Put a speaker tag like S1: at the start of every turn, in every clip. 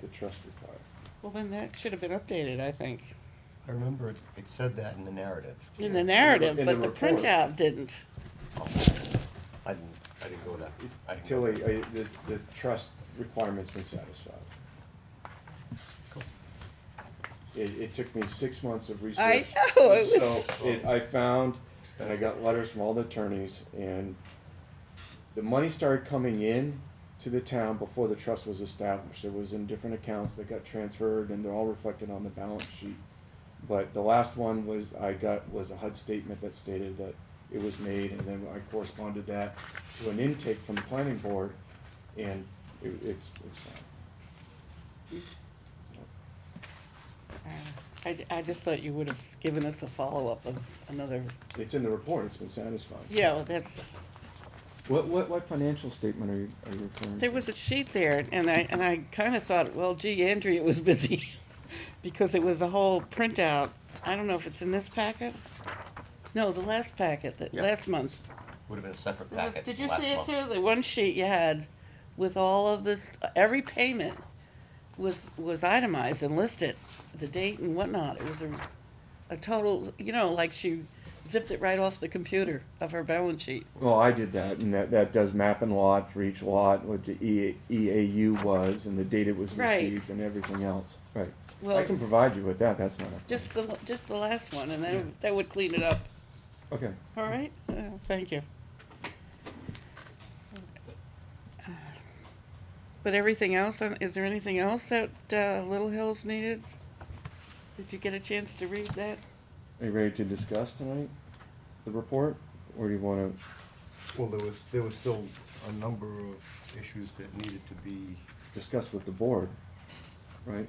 S1: the trust require.
S2: Well, then that should have been updated, I think,
S3: I remember it, it said that in the narrative.
S2: in the narrative,
S1: in
S2: but
S1: the
S2: the
S1: report.
S2: printout didn't.
S3: I didn't, I didn't go that, I didn't. go
S1: Till a,
S3: that-
S1: a, the, the trust requirement's been satisfied.
S3: Cool.
S1: It, it took me six months of research.
S2: I know, it
S1: So
S2: was-
S1: it- I found, and I got letters from all the attorneys, and the money started coming in to the town before the trust was established. It was in different accounts that got transferred, and they're all reflected on the balance sheet. But the last one was, I got, was a HUD statement that stated that it was made, and then I corresponded that to an intake from the planning board, and it, it's, it's fine.
S2: Uh, I, I just thought you would have given us a follow-up of another,
S1: It's in the report, it's been satisfied.
S2: yeah, well, that's,
S1: What, what, what financial statement are you, are you referring to?
S2: there was a sheet there, and I, and I kinda thought, well, gee, Andrea was busy, because it was a whole printout. I don't know if it's in this packet? No, the last packet, that,
S3: Yeah.
S2: last month's.
S3: Would've been a separate
S2: It was-
S3: packet.
S2: Did you
S3: last
S2: see it
S3: month.
S2: too? The one sheet you had with all of this, every payment was, was itemized and listed, the date and whatnot. It was a, a total, you know, like she zipped it right off the computer of her balance sheet.
S1: Well, I did that, and that, that does map and lot for each lot, what the E- EAU was, and the date it was
S2: Right.
S1: received, and everything else. Right. I
S2: Well-
S1: can provide you with that, that's not a.
S2: Just the, just the last one, and then that would clean it up.
S1: Okay.
S2: All right? Uh, Thank you. But everything else, uh, is there anything else that uh, Little Hills needed? Did you get a chance to read that?
S1: Are you ready to discuss tonight, the report, or do you wanna,
S4: Well, there was, there was still a number of issues that needed to be,
S1: discuss with the board? Right?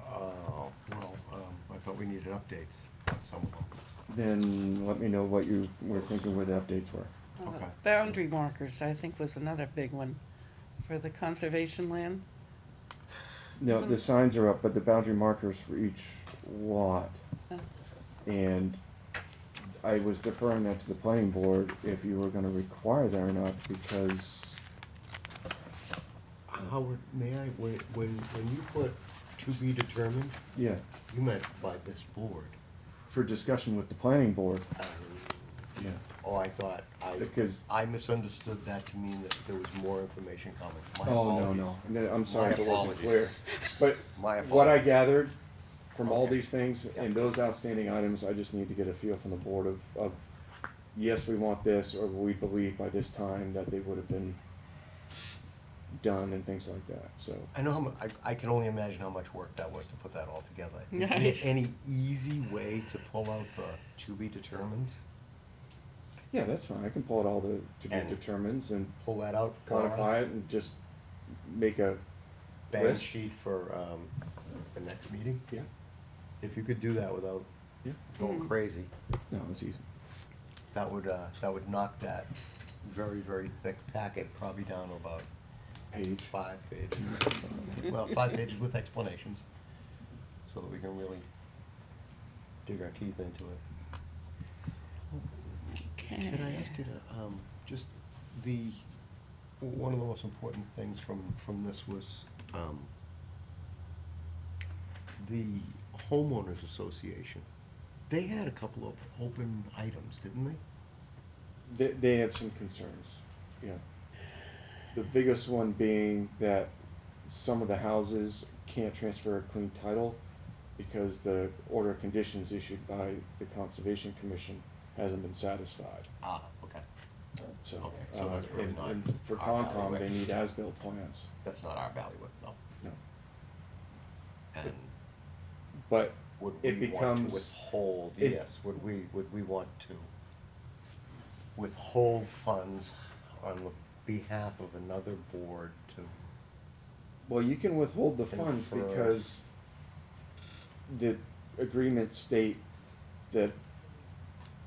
S4: uh, well, um, I thought we needed updates on some of them.
S1: Then let me know what you were thinking where the updates were.
S2: Uh,
S4: Okay.
S2: Boundary markers, I think, was another big one for the conservation land.
S1: No, the
S2: Isn't-
S1: signs are up, but the boundary markers for each lot.
S2: Oh.
S1: And I was deferring that to the planning board if you were gonna require that or not, because
S4: Howard, may I, when, when, when you put to be determined,
S1: Yeah,
S4: you meant by this board. Um,
S1: for discussion with the planning board. Yeah.
S4: Oh, I thought, I,
S1: Because-
S4: I misunderstood that to mean that there was more information coming. My
S1: Oh, no,
S4: apologies.
S1: no, No, I'm sorry,
S4: My
S1: if it wasn't
S4: apologies.
S1: clear. But
S4: My
S1: what I
S4: apologies.
S1: gathered from all
S4: Okay.
S1: these things and those outstanding items, I just need to get a feel from the board of, of, yes, we want this, or we believe by this time that they would have been done and things like that, so.
S4: I know how mu- I, I can only imagine how much work that was to put that all together. Is
S2: Right.
S4: there any easy way to pull out the to be determined?
S1: Yeah, that's fine, I can pull out all the, to
S4: And-
S1: be determines and
S4: Pull that out for
S1: quantify
S4: us?
S1: it and just make a,
S4: Balance
S1: list?
S4: sheet for, um, the next meeting?
S1: yeah,
S4: If you could do that without
S1: yeah,
S4: going crazy,
S1: no, it's easy.
S4: that would, uh, that would knock that very, very thick packet probably down to about
S1: Page,
S4: five pages. Well, five pages with explanations, so that we can really dig our teeth into it.
S2: Okay.
S4: Can I ask you to, um, just the, one of the most important things from, from this was, um, the homeowners association, they had a couple of open items, didn't they?
S1: they, they have some concerns, yeah. The biggest one being that some of the houses can't transfer a clean title because the order of conditions issued by the Conservation Commission hasn't been satisfied,
S4: Ah, okay.
S1: so.
S4: Okay, so
S1: uh,
S4: that's really
S1: and-
S4: not
S1: and For
S4: our
S1: Concom, they
S4: bailiwick.
S1: need as-built plans,
S4: That's not our ballywick though,
S1: no,
S4: and
S1: but
S4: would
S1: It
S4: we want
S1: becomes-
S4: to withhold,
S1: it-
S4: yes, would we, would we want to withhold funds on the behalf of another board to
S1: Well, you can withhold the
S4: Can
S1: funds
S4: for-
S1: because the agreements state that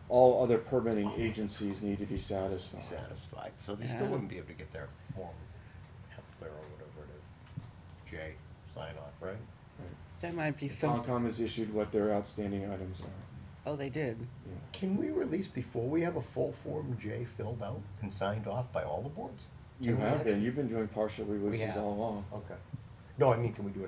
S1: all other permitting agencies need to be
S4: be
S1: satisfied.
S4: satisfied, so they still
S2: Yeah.
S4: wouldn't be able to get their form, F their or whatever it is, J, sign off, right?
S2: That might be some,
S1: Concom has issued what their outstanding items are,
S2: oh, they did.
S1: yeah.
S4: Can we release before we have a full Form J filled out and signed off by all the boards?
S1: You
S4: Can we
S1: have
S4: actually-
S1: been, you've been doing partial releases
S4: have.
S1: all along.
S4: Okay. No, I mean, can we do a